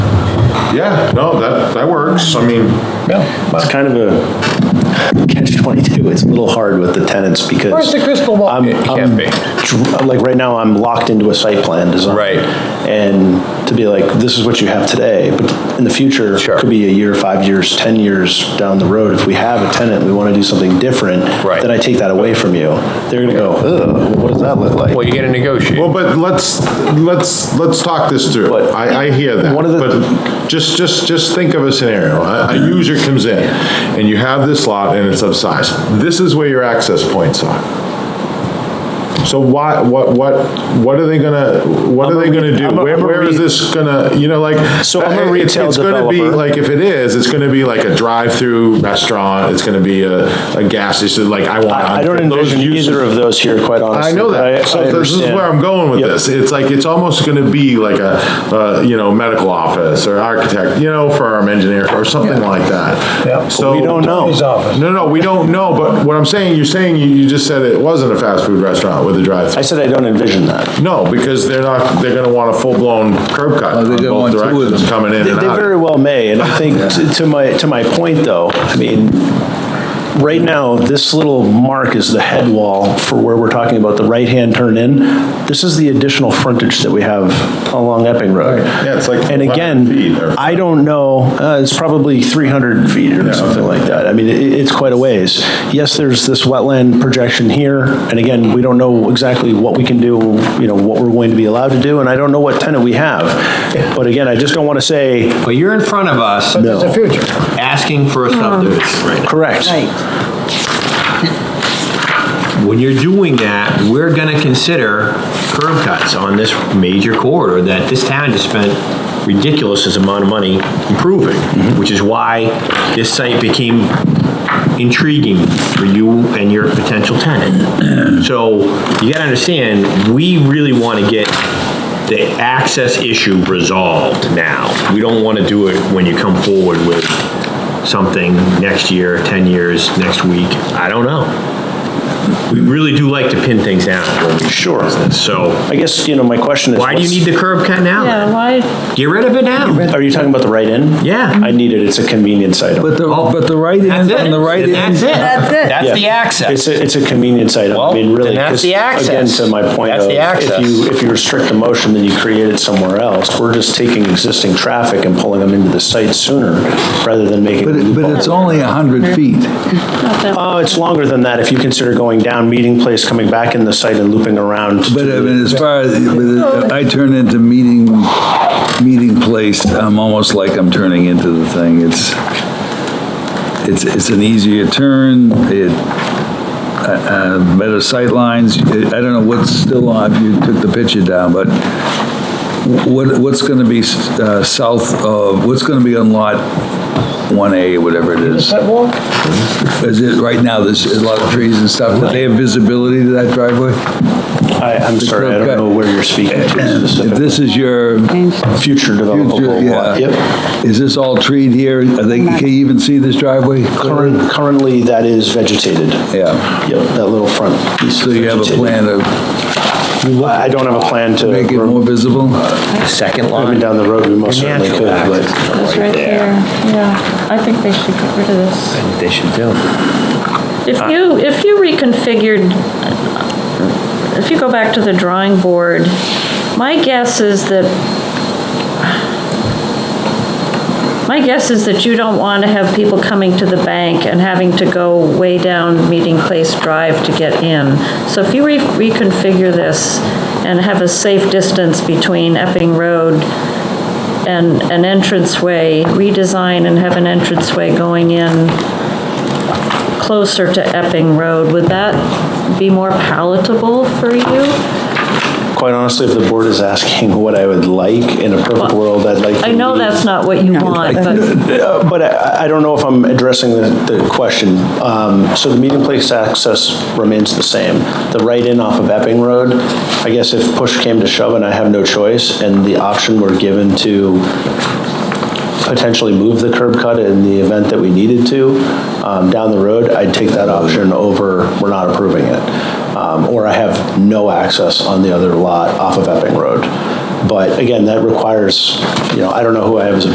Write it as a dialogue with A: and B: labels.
A: Yeah, no, that, that works. I mean,
B: Yeah.
C: It's kind of a catch 22. It's a little hard with the tenants because.
B: Where's the crystal ball?
C: I'm-
B: It can't
C: I'm
B: be.
C: dr- Like, right now, I'm locked into a site plan design.
B: Right.
C: And to be like, this is what you have today, but in the future,
B: Sure.
C: could be a year, five years, 10 years down the road, if we have a tenant, we want to do something different.
B: Right.
C: Then I take that away from you. They're going to go, ugh, what does that look like?
B: Well, you gotta negotiate.
A: well, but let's, let's, let's talk this through.
C: But-
A: I, I hear that.
C: One of the-
A: But just, just, just think of a scenario. A, a user comes in and you have this lot and it's upsized. This is where your access points are. So why, what, what, what are they gonna, what are they gonna do?
C: I'm a-
A: Where,
C: I'm a
A: where is
C: re-
A: this gonna, you know, like.
C: So I'm a
A: it's-
C: retail
A: It's gonna be
C: developer.
A: like, if it is, it's gonna be like a drive-through restaurant. It's gonna be a, a gas station, like I want.
C: I I don't
A: those
C: envision
A: uses.
C: either of those here, quite honestly.
A: I know
C: but
A: that. So
C: I
A: this is
C: understand.
A: where I'm going with
C: Yep.
A: this. It's like, it's almost gonna be like a, uh, you know, medical office or architect, you know, firm, engineer, or something like
B: Yeah.
A: that. So
C: We don't know.
B: Attorney's office.
A: No, no, we don't know, but what I'm saying, you're saying, you, you just said it wasn't a fast food restaurant with a
C: I
A: drive-through.
C: said I don't envision that.
A: No, because they're not, they're gonna want a full-blown curb cut
D: Oh,
A: on
D: they're gonna
A: both
D: want two of
A: directions
D: them.
A: coming in
C: They
A: and
C: they very
A: out.
C: well may, and I think to- to my, to my point, though, I mean, right now, this little mark is the head wall for where we're talking about the right-hand turn in. This is the additional frontage that we have along Epping Road.
A: Yeah, it's like
C: And
A: 11 feet
C: again,
A: or-
C: I don't know, uh, it's probably 300 feet or something like that. I mean, it- it's quite a ways. Yes, there's this wetland projection here, and again, we don't know exactly what we can do, you know, what we're going to be allowed to do, and I don't know what tenant we have. But again, I just don't want to say,
D: But you're in front of us
B: It's the future.
D: asking for a subdivision right
C: correct.
D: now. When you're doing that, we're gonna consider curb cuts on this major corridor that this town just spent ridiculous amount of money improving, which is why this site became intriguing for you and your potential tenant. So you gotta understand, we really wanna get the access issue resolved now. We don't want to do it when you come forward with something next year, 10 years, next week, I don't know. We really do like to pin things down when we
C: Sure.
D: business, so
C: I guess, you know, my question is.
D: why do you need the curb cut
E: Yeah,
D: now?
E: why,
D: Get rid of it now.
C: what's- Are you talking about the right in?
D: Yeah.
C: I need it, it's a convenience item.
F: But the, but the right
D: That's
F: end,
D: it.
F: on the right end.
D: That's it.
E: That's it.
D: That's the
C: Yeah. It's
D: access.
C: a, it's a convenience item, I
D: Well,
C: mean, really.
D: then that's
C: 'cause,
D: the access.
C: Again, to my point
D: That's
C: of,
D: the
C: if you, if you restrict the motion, then you create it somewhere else. We're just taking existing traffic and pulling them into the site sooner, rather than making.
F: But it- but it's only 100 feet.
C: Oh, it's longer than that, if you consider going down Meeting Place, coming back in the site and looping around. to
F: But I
C: the-
F: mean, as far as, but I turn into meeting, meeting place, I'm almost like I'm turning into the thing. It's, it's, it's an easier turn, it, uh, uh, better sightlines. I don't know what's still on, you took the picture down, but what, what's going to be uh, south of, what's going to be on lot 1A, whatever it is?
B: Sidewalk?
F: Is it, right now, there's a lot of trees and stuff, do they have visibility to that driveway?
C: I, I'm sorry, I don't know where you're speaking to
F: If
C: specifically.
F: this is your
C: Future
F: future,
C: developable lot, yep.
F: yeah, is this all treed here? Are they, can you even see this driveway?
C: Current- Currently, that is vegetated.
F: Yeah.
C: Yep, that little front piece. is
F: So you have a
C: vegetated.
F: plan to
C: I I don't have a plan to,
F: make it more visible?
C: Uh,
D: Second
C: I mean,
D: line.
C: down the road, we most certainly could, but
E: it's right there, yeah. I think they should get rid of this.
D: They should do.
E: If you, if you reconfigured, if you go back to the drawing board, my guess is that, my guess is that you don't want to have people coming to the bank and having to go way down Meeting Place Drive to get in. So if you re- reconfigure this and have a safe distance between Epping Road and an entranceway, redesign and have an entranceway going in closer to Epping Road, would that be more palatable for you?
C: quite honestly, if the board is asking what I would like in a perfect world, I'd like to.
E: I know
C: leave-
E: that's not what you want, but
C: Uh, But I I don't know if I'm addressing the the question. Um, So the meeting place access remains the same. The right-in off of Epping Road, I guess if push came to shove and I have no choice, and the option were given to potentially move the curb cut in the event that we needed to um, down the road, I'd take that option over, we're not approving it. Um, Or I have no access on the other lot off of Epping Road. But again, that requires, you know, I don't know who I have as a